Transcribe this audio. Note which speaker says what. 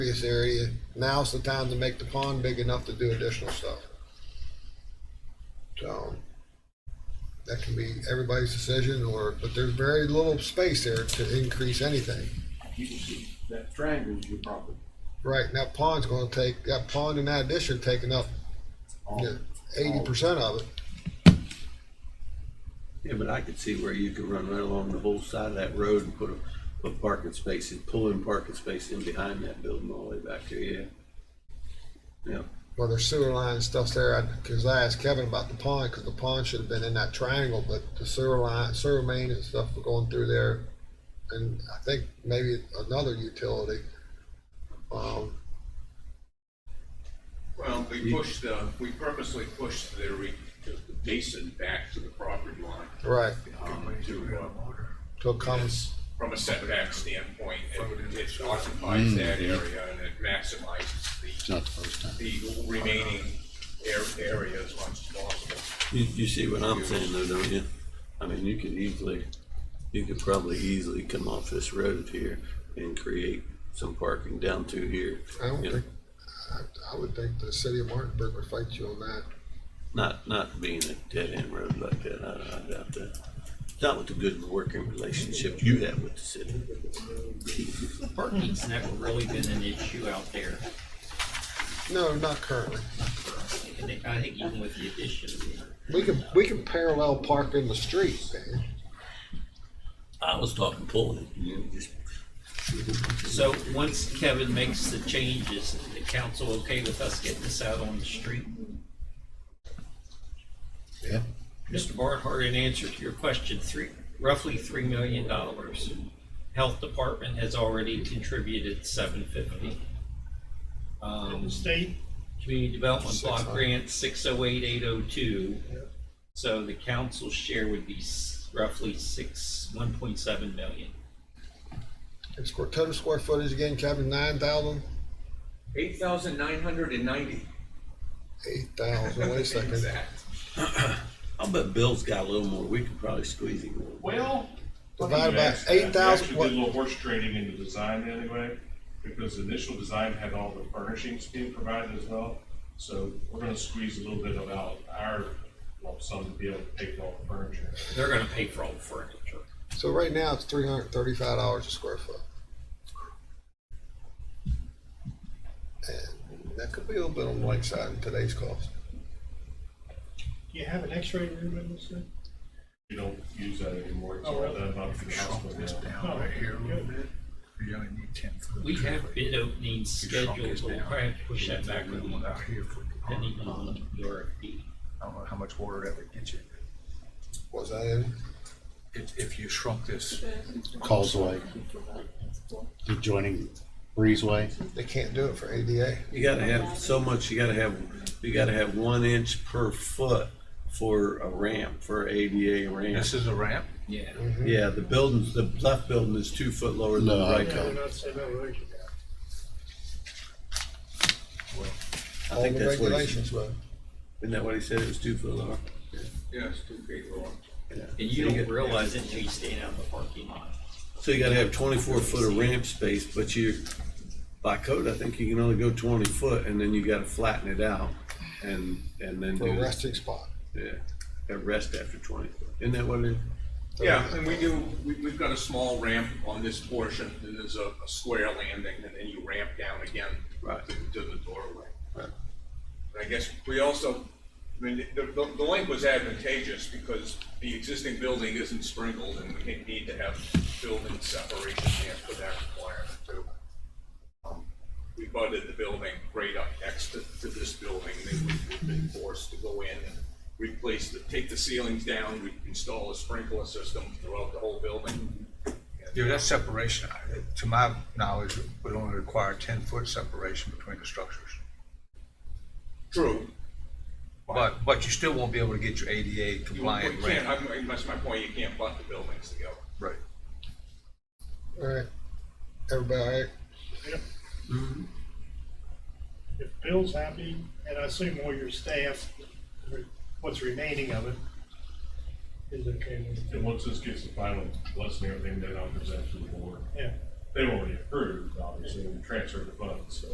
Speaker 1: impervious area, now's the time to make the pond big enough to do additional stuff. So, that can be everybody's decision or, but there's very little space there to increase anything.
Speaker 2: You can see that triangle is your property.
Speaker 1: Right, and that pond's gonna take, that pond and that addition taking up
Speaker 2: All-
Speaker 1: eighty percent of it.
Speaker 3: Yeah, but I could see where you could run right along the whole side of that road and put a, a parking space and pull in parking space in behind that building all the way back there, yeah. Yeah,
Speaker 1: Well, there's sewer line and stuff there, I- cause I asked Kevin about the pond, cause the pond should have been in that triangle, but the sewer line, sewer main and stuff were going through there. And I think maybe another utility. Um,
Speaker 4: Well, we pushed the, we purposely pushed the re- the basin back to the property line,
Speaker 1: right,
Speaker 4: um, to, uh,
Speaker 1: till it comes,
Speaker 4: from a setback standpoint, it it occupies that area and it maximizes the,
Speaker 5: Mm, Not the first time.
Speaker 4: the remaining air- area as much as possible.
Speaker 3: you, you see what I'm saying though, don't you? I mean, you could easily, you could probably easily come off this road here and create some parking down to here.
Speaker 1: I don't
Speaker 3: you know.
Speaker 1: think, I, I would think the city of Martinburg would fight you on that.
Speaker 3: Not, not being a dead end road like that, I, I doubt that. Not with the good working relationship you have with the city.
Speaker 6: Parking's never really been an issue out there.
Speaker 1: No, not currently.
Speaker 6: I think- I think even with the addition,
Speaker 1: We can, we can parallel park in the street, man.
Speaker 3: I was talking pulling, you know, just
Speaker 6: so once Kevin makes the changes, is the council okay with us getting this out on the street?
Speaker 5: Yeah.
Speaker 6: Mr. Barnhart, in answer to your question, three, roughly three million dollars. Health Department has already contributed seven fifty. Um,
Speaker 7: state,
Speaker 6: Community Development Block Grant, six oh eight, eight oh two. So the council share would be s- roughly six, one point seven million.
Speaker 1: And square, total square footage again, Kevin, nine thousand,
Speaker 4: Eight thousand nine hundred and ninety.
Speaker 1: eight thousand, wait a second.
Speaker 3: I'll bet Bill's got a little more. We could probably squeeze him a little.
Speaker 7: well.
Speaker 1: Divided by
Speaker 7: Actually,
Speaker 1: eight thousand,
Speaker 7: We actually
Speaker 1: what,
Speaker 7: did a little horse trading in the design anyway, because the initial design had all the furnishings being provided as well. So we're gonna squeeze a little bit of out our lump sum to be able to pay for all the furniture.
Speaker 6: They're gonna pay for all the furniture.
Speaker 1: so right now it's three hundred and thirty-five dollars a square foot. And that could be a little bit on the lakeside in today's cost.
Speaker 8: Do you have an x-ray room in this thing?
Speaker 7: We don't use that anymore. It's
Speaker 8: Oh,
Speaker 7: all
Speaker 8: really?
Speaker 7: done up in the hospital now.
Speaker 8: Oh, right here a little bit.
Speaker 9: You only need ten foot.
Speaker 6: We have bid openings scheduled, we'll probably push that back a little,
Speaker 9: Out here for the pond.
Speaker 6: depending on the RFP.
Speaker 9: I don't know how much water that would get you.
Speaker 1: Was that in?
Speaker 9: If, if you shrunk this,
Speaker 5: Causeway. The adjoining breezeway.
Speaker 1: They can't do it for ADA.
Speaker 3: You gotta have so much. You gotta have. You gotta have one inch per foot for a ramp for ADA ramp.
Speaker 9: this is a ramp,
Speaker 6: Yeah.
Speaker 3: yeah, the buildings. The left building is two foot lower than
Speaker 5: No,
Speaker 3: the
Speaker 5: I
Speaker 3: right.
Speaker 8: No,
Speaker 3: building.
Speaker 8: not so, no, right.
Speaker 3: I
Speaker 1: All
Speaker 3: think
Speaker 1: the
Speaker 3: that's what. He,
Speaker 1: regulations will.
Speaker 3: isn't that what he said? It was two foot lower.
Speaker 4: Yes, two feet long.
Speaker 3: Yeah.
Speaker 6: And you don't realize it until you stand out in the parking lot.
Speaker 3: So you gotta have twenty-four foot of ramp space, but you, by code, I think you can only go twenty foot, and then you gotta flatten it out, and and then
Speaker 1: for a
Speaker 3: do
Speaker 1: resting spot.
Speaker 3: yeah, a rest after twenty foot. Isn't that what it is?
Speaker 4: Yeah, and we do, we, we've got a small ramp on this portion, and there's a, a square landing, and then you ramp down again
Speaker 3: Right.
Speaker 4: to, to the doorway.
Speaker 3: Right.
Speaker 4: And I guess we also, I mean, the, the, the link was advantageous because the existing building isn't sprinkled, and we need to have building separation there for that requirement too. Um, We butted the building right up next to, to this building, they would, we've been forced to go in and replace the, take the ceilings down, we install a sprinkler system throughout the whole building.
Speaker 9: yeah, that separation, I- to my knowledge, would only require ten foot separation between the structures.
Speaker 4: True,
Speaker 9: But, but you still won't be able to get your ADA
Speaker 4: you
Speaker 9: compliant
Speaker 4: can't,
Speaker 9: ramp.
Speaker 4: I'm- that's my point, you can't butt the buildings together.
Speaker 9: Right.
Speaker 1: All right, everybody, all right?
Speaker 8: If Bill's happy, and I assume all your staff, what's remaining of it is okay with it.
Speaker 7: And once this gets the final blessing, and everything, then I'll present to the board.
Speaker 8: Yeah,
Speaker 7: they won't be approved, obviously, we transfer the funds, so.